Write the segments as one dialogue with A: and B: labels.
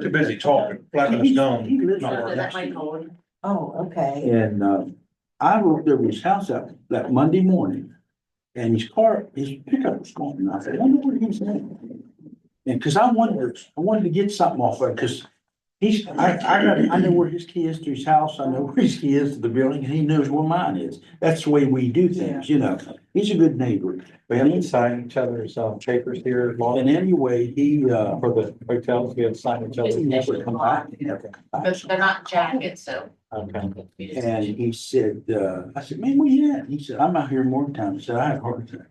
A: Too busy talking, flapping his
B: He
A: gum.
B: lives
A: Not
B: under
A: working.
B: that way, Colin. Oh, okay.
C: And, uh, I walked over his house that, that Monday morning. And his car, his pickup was gone, and I said, I wonder what he was doing. And, cause I wondered, I wanted to get something off of it, cause he's, I, I got, I know where his key is to his house, I know where his key is to the building, and he knows where mine is. That's the way we do things, you know, he's a good neighbor.
D: We have to sign each other's uh, papers here, law
C: And anyway, he, uh,
D: for the hotels, we have to sign each
C: he
D: other's.
C: never come back, he never come back.
B: But they're not jackets, so.
D: Okay.
B: we just-
C: And he said, uh, I said, man, where you at? He said, I'm out here more times. He said, I have heart attack.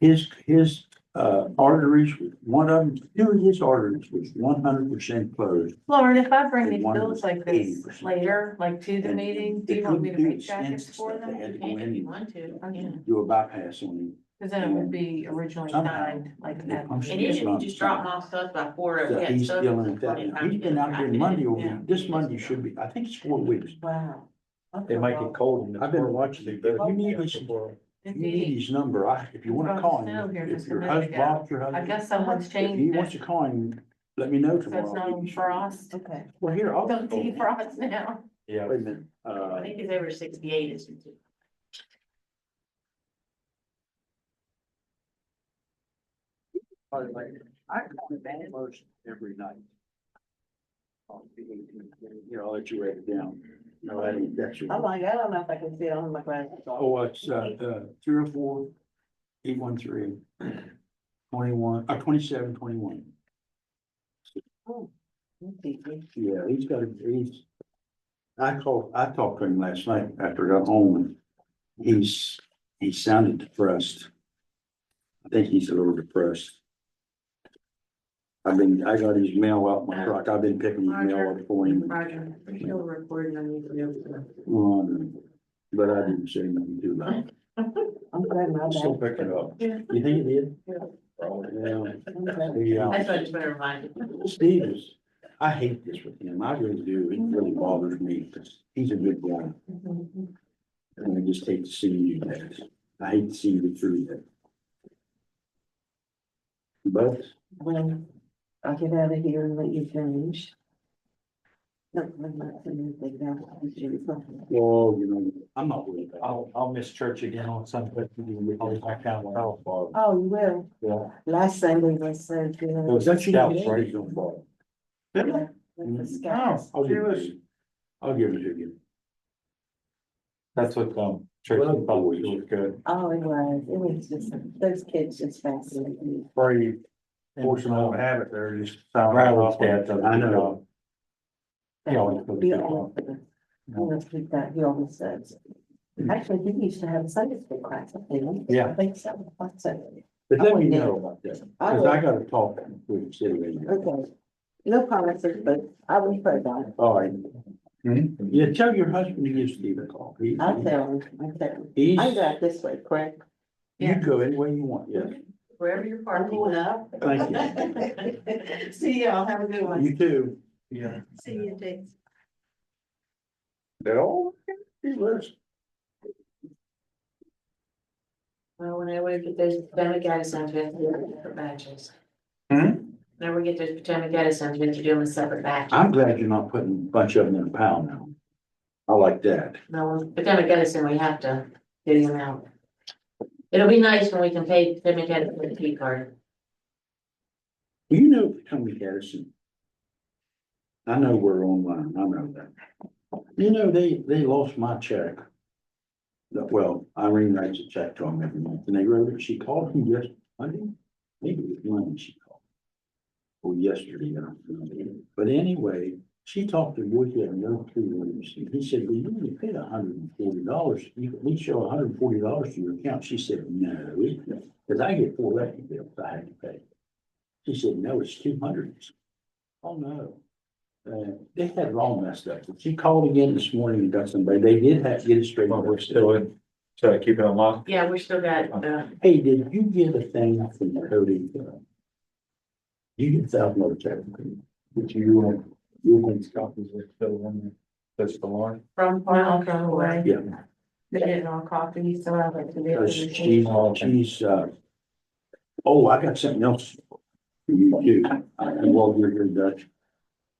C: His, his, uh, arteries, one of them, two of his arteries was one hundred percent closed.
E: Lauren, if I bring
C: They
E: these
C: wanted
E: bills like
C: eighty
E: this
C: percent.
E: later, like to the
C: And
E: meeting, do
C: they
E: you want me to
C: couldn't do
E: make
C: the
E: jackets
C: census
E: for
C: that They
E: them?
C: had to go in
B: If you
C: and
B: want to, I mean,
C: do a bypass on him.
E: Cause then it would be originally
C: Somehow.
E: signed like
C: Yeah,
E: that.
C: I'm sure
B: And you
C: that's
B: should
C: not-
B: just drop them off stuff by four
C: So
B: or. yeah,
C: he's
B: stuff
C: dealing
B: is
C: with that.
B: funny.
C: now.
B: I
C: He's been out
B: mean,
C: here
B: I did
C: Monday,
B: it,
C: or
B: yeah.
C: this Monday should be, I think it's four weeks.
B: Wow.
D: It might get cold. and it's
C: I've been
D: warm.
C: watching it, but you need this- You
E: It'd
C: need
E: be-
C: his number. I, if you wanna call him,
E: Snow here
C: if
E: just a
C: your
E: minute
C: husband,
E: ago.
C: Bob, your
E: I
C: husband,
E: guess someone's
C: if he
E: changed
C: wants
E: it,
C: to call him, let me know
E: so
C: tomorrow.
E: it's not on frost.
B: Okay.
C: Well, here, I'll.
E: Don't see frost now.
D: Yeah.
C: Wait a minute, uh,
B: I think it's over sixty-eight, isn't it?
C: I call him almost every night. Oh, On the 18th, Here, I'll let you write it down. No, I didn't, that's your.
B: like, I don't know if I can see it on my glasses.
C: Oh, it's, uh, uh, three oh four, eight one three, twenty-one, uh, twenty-seven, twenty-one. Yeah, he's got, a he's. I called, I talked to him last night after I got home and he's, he sounded depressed. I think he's a little depressed. I've been, I got his mail out my truck. I've been picking his mail up for him.
B: Roger, I'm still recording on YouTube.
C: Um, But I didn't say nothing to him.
B: I'm glad my
A: Still picking up.
C: You think he did? Oh, Yeah. Yeah.
B: That's what I just want to remind you.
C: Steve is, I hate this with him. I really do. It really bothers me because he's a good guy.
E: Mm-hmm.
C: And I just hate to see you do that. I hate to see you through that. But
F: Well, I'll get out of here and let you finish. No, I'm not finished, they got to do something.
C: Well, you know, I'm not worried about
D: I'll, I'll miss church again on Sunday. I'll be back down.
C: it. Bob.
F: Oh, you will.
D: Yeah.
F: Last Sunday was so
D: It
F: good. Oh,
D: was that scouts, right?
C: Bob.
F: with the
A: Oh,
F: scouts.
C: I'll give it to
A: Yes.
C: you. I'll give it to you.
D: That's what, um, church
C: Well,
D: probably
C: boys.
D: was good.
F: Oh, it was, it was just, those kids just fascinated me.
A: Very fortunate to have it there, just.
D: Rattle off that. uh,
C: I know.
D: He always goes
F: Be
D: to-
F: all for them. You know, keep that, he always says. Actually, he used to have a Sunday school class, I think.
D: Yeah.
F: I think so, I thought so.
C: But let me know about that,
F: I
C: because
F: will,
C: I gotta talk with the city. manager.
F: okay. No promises, but I will pray about it.
C: All right.
D: Hmm?
C: Yeah, tell your husband to give Steve a call. He-
F: I'll tell him, I'll tell him.
C: He's,
F: I go out this way, correct?
C: you go any way you want, yes.
B: Wherever you're parking up.
C: Thank you.
B: See y'all, have a good one.
C: You too.
A: Yeah.
B: See you, Jason.
C: They're all, he lives.
B: Well, when I would get those Potomac Edison, we have to do them in separate batches.
A: Hmm?
B: Now we get those Potomac Edison, we have to do them in separate batches.
C: I'm glad you're not putting a bunch of them in a pile now. I like that.
B: No, Potomac Edison, we have to do them out. It'll be nice when we can pay Potomac Edison with a P card.
C: Do you know Potomac Edison? I know we're online, I know that. You know, they, they lost my check. That- Well, Irene writes a check to them every month, and they wrote it, she called me yesterday, Monday, maybe it was Monday she called. Or yesterday, I don't remember, but anyway, she talked to Woody and no two Williams, and he said, well, you only paid hundred and forty dollars, you can at least show hundred and forty dollars to your account, she said, no, because I get four electric bills I had to pay. She said, no, it's two hundred. Oh, no. Uh, they had it all messed up. She called again this morning and got somebody. They did have to get it straight.
D: But we're still in, so I keep it unlocked.
B: Yeah, we still got, uh,
C: Hey, did you get a thing from Cody? You get a thousand dollar check.
D: Would you, uh, you think copies are still in there? That's the line.
E: From file
B: I'll go
E: go away,
B: away.
C: Yeah,
E: they didn't all copy, so I went to the. other
C: because
E: machine.
C: she's, she's, uh, oh, I got something else. for You too. I, well, you're here, Dutch.